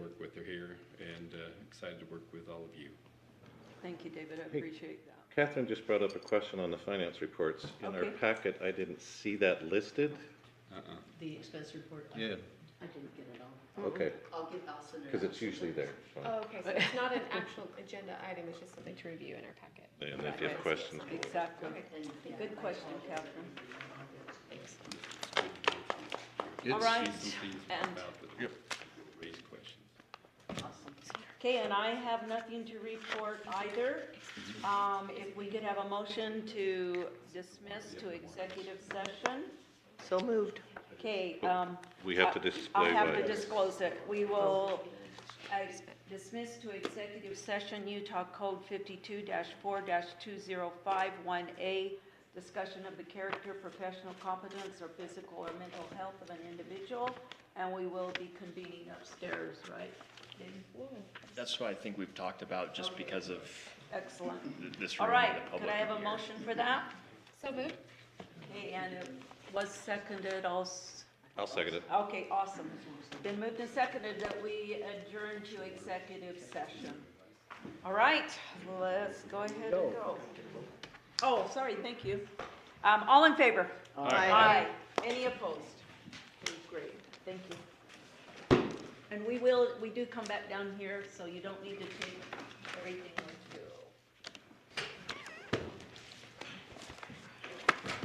but they're here and uh, excited to work with all of you. Thank you, David, I Hey. appreciate that. Catherine just brought up a question on the finance reports. In our Okay. packet, I didn't see that listed. Uh-uh. The expense report? I- Yeah. I didn't get it all. Mm-hmm. Okay, I'll get, I'll send it out. because it's usually there. Oh, okay, so it's not an actual agenda item, it's just something to review in our packet. And if you have questions, we'll- Exactly. And, yeah, Good question, Catherine. Thanks. All See right, some things and- about that Raise questions. Awesome. Okay, and I have nothing to report either. Um, if we could have a motion to dismiss to executive session. So moved. Okay, Oh. um. we have to I- display I'll have to what- disclose it. We will uh, dismiss to executive session Utah Code 52-4-2051A, discussion of the character, professional competence, or physical or mental health of an individual, and we will be convening upstairs, right? That's what I think we've talked about, just because of Excellent. th- this All room right, and the could public. I have a here. motion for that? So moved? Okay, and it was seconded also. I'll second it. Okay, awesome. Been moved and seconded that we adjourn to executive session. All right, let's go ahead and go. Oh, sorry, thank you. Um, all in favor? Aye. Any opposed? Great, thank you. And we will, we do come back down here, so you don't need to take everything with you.